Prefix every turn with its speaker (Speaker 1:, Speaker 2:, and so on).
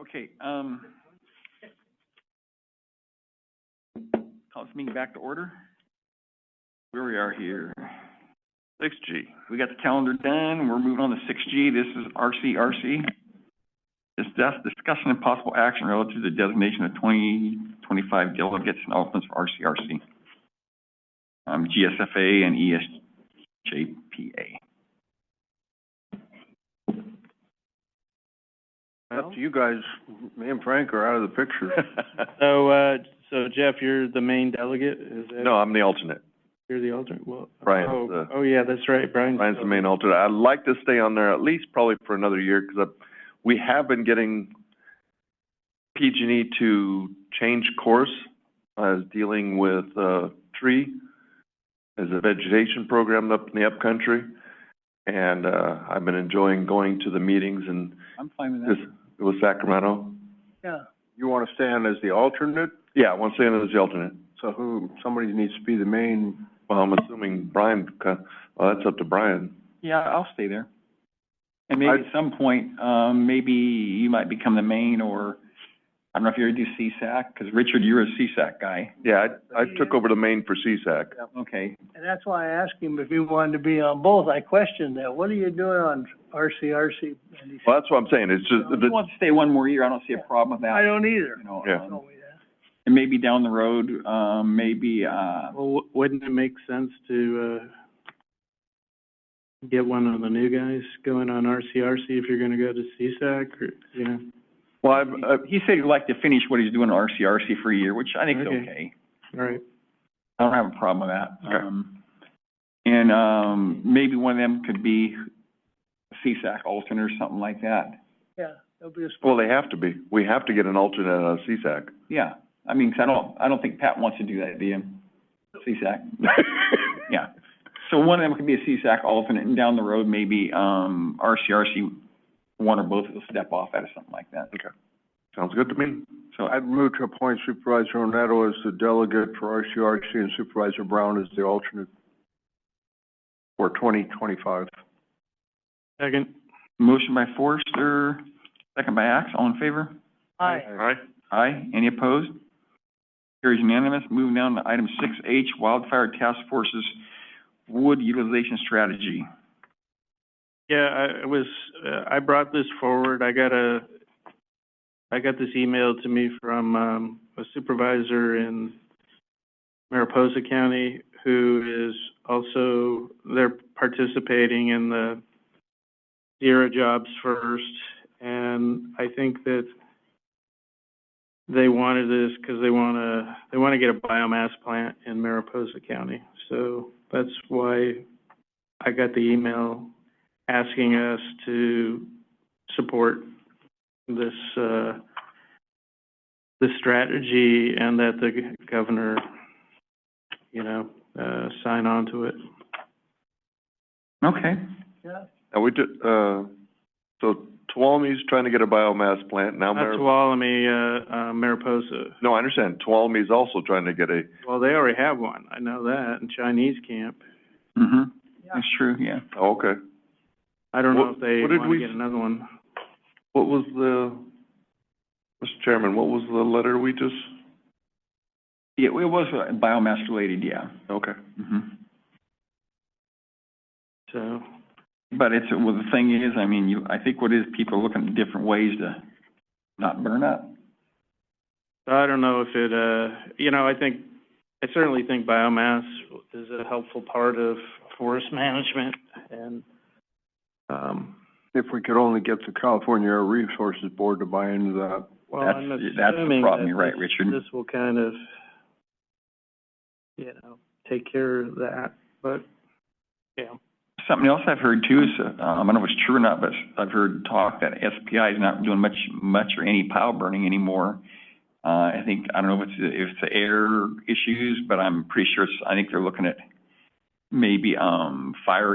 Speaker 1: Okay, um, call this meeting back to order. Where we are here. Six G, we got the calendar done, we're moving on to six G, this is RCRC. Discuss, discussion and possible action relative to the designation of twenty, twenty-five delegates and alternates for RCRC. Um, GSFA and ESJPA.
Speaker 2: Up to you guys, me and Frank are out of the picture.
Speaker 3: So, uh, so Jeff, you're the main delegate, is that?
Speaker 2: No, I'm the alternate.
Speaker 3: You're the alternate, well.
Speaker 2: Brian's
Speaker 3: oh,
Speaker 2: the-
Speaker 3: Oh, yeah, that's right, Brian.
Speaker 2: Ryan's the main alternate. I'd like to stay on there at least probably for another year, because we have been getting PG&E E to change course, as dealing with, uh, tree, as a vegetation program up in the upcountry. And, uh, I've been enjoying going to the meetings and
Speaker 1: I'm fine with
Speaker 2: this, with Sacramento.
Speaker 1: Yeah.
Speaker 4: You want to stand as the alternate,
Speaker 2: Yeah, I want to stay on as the alternate.
Speaker 4: so who, somebody needs to be the main,
Speaker 2: Well, I'm assuming Brian, co- well, that's up to Brian.
Speaker 1: Yeah, I'll stay there. And maybe at some point, um, maybe you might become the main, or, I don't know if you ever do CSAC, because Richard, you're a CSAC guy.
Speaker 2: Yeah, I, I took over the main for CSAC.
Speaker 1: Okay,
Speaker 5: And that's why I asked him if he wanted to be on both. I questioned that. What are you doing on RCRC? And he said,
Speaker 2: Well, that's what I'm saying, it's just,
Speaker 1: if you
Speaker 2: the,
Speaker 1: want to stay one more year, I don't see a problem with
Speaker 5: I
Speaker 1: that,
Speaker 5: don't either.
Speaker 1: you know.
Speaker 2: Yeah.
Speaker 1: um,
Speaker 5: Told me that.
Speaker 1: And maybe down the road, um, maybe, uh,
Speaker 3: Well, w- wouldn't it make sense to, uh, get one of the new guys going on RCRC if you're gonna go to CSAC, or, you know?
Speaker 2: well, I've, I,
Speaker 1: he said he'd like to finish what he's doing at RCRC for a year, which I think is
Speaker 3: Okay.
Speaker 1: okay.
Speaker 3: All right,
Speaker 1: I don't have a problem with that.
Speaker 2: Okay.
Speaker 1: Um, And, um, maybe one of them could be CSAC alternate or something like that.
Speaker 5: Yeah, that'll be a spot.
Speaker 2: well, they have to be, we have to get an alternate uh, on CSAC.
Speaker 1: Yeah, I mean, 'cause I don't, I don't think Pat wants to do that, do you? CSAC, yeah. So one of them could be a CSAC alternate, and down the road, maybe, um, RCRC, one or both will step off out of something like that.
Speaker 2: Sounds good to me.
Speaker 1: So,
Speaker 4: I'd move to appoint Supervisor Onetto as the delegate for RCRC and Supervisor Brown as the alternate for twenty twenty-five.
Speaker 3: second,
Speaker 1: motion by Forrester, second by Axe, all in favor?
Speaker 5: Aye.
Speaker 2: Alright.
Speaker 1: Aye, any opposed? Carries unanimous. Moving down to item six H, Wildfire Task Force's Wood Utilization Strategy.
Speaker 3: yeah, I- I was, uh, I brought this forward, I got a, I got this email to me from, um, a supervisor in Mariposa County, who is also, they're participating in the Zero Jobs First, and I think that they wanted this because they want to, they want to get a biomass plant in Mariposa County. So that's why I got the email asking us to support this, uh, the strategy and that the governor, you know, uh, sign on to it.
Speaker 1: Okay,
Speaker 5: Yeah,
Speaker 2: And we did, uh, so Tuolumne's trying to get a biomass plant, now
Speaker 3: Not
Speaker 2: Mar-
Speaker 3: Tuolumne, uh, uh, Mariposa.
Speaker 2: no, I understand, Tuolumne's also trying to get a,
Speaker 3: Well, they already have one, I know that, in Chinese camp.
Speaker 1: hmm
Speaker 5: Yeah.
Speaker 1: that's true, yeah.
Speaker 2: oh, okay.
Speaker 3: I don't know
Speaker 2: What-
Speaker 3: if they
Speaker 2: what did
Speaker 3: want
Speaker 2: we
Speaker 3: to get
Speaker 2: s-
Speaker 3: another one.
Speaker 2: What was the, Mr. Chairman, what was the letter we just,
Speaker 1: Yeah, it was uh, biomass related, yeah.
Speaker 2: okay.
Speaker 1: hmm
Speaker 3: So,
Speaker 1: But it's, well, the thing is, I mean, you, I think what is, people are looking at different ways to not burn up.
Speaker 3: so I don't know if it, uh, you know, I think, I certainly think biomass is a helpful part of forest management and, um,
Speaker 4: If we could only get the California Air Resources Board to buy into that.
Speaker 3: Well,
Speaker 1: That's-
Speaker 3: I'm
Speaker 1: that's the
Speaker 3: assuming
Speaker 1: problem.
Speaker 3: that
Speaker 1: You're right,
Speaker 3: this-
Speaker 1: Richard.
Speaker 3: This will kind of, you know, take care of that, but, yeah.
Speaker 1: Something else I've heard too is, uh, um, I don't know if it's true or not, but I've heard talk that SPI is not doing much, much or any pile burning anymore. Uh, I think, I don't know if it's, if it's the air issues, but I'm pretty sure it's, I think they're looking at maybe, um, fire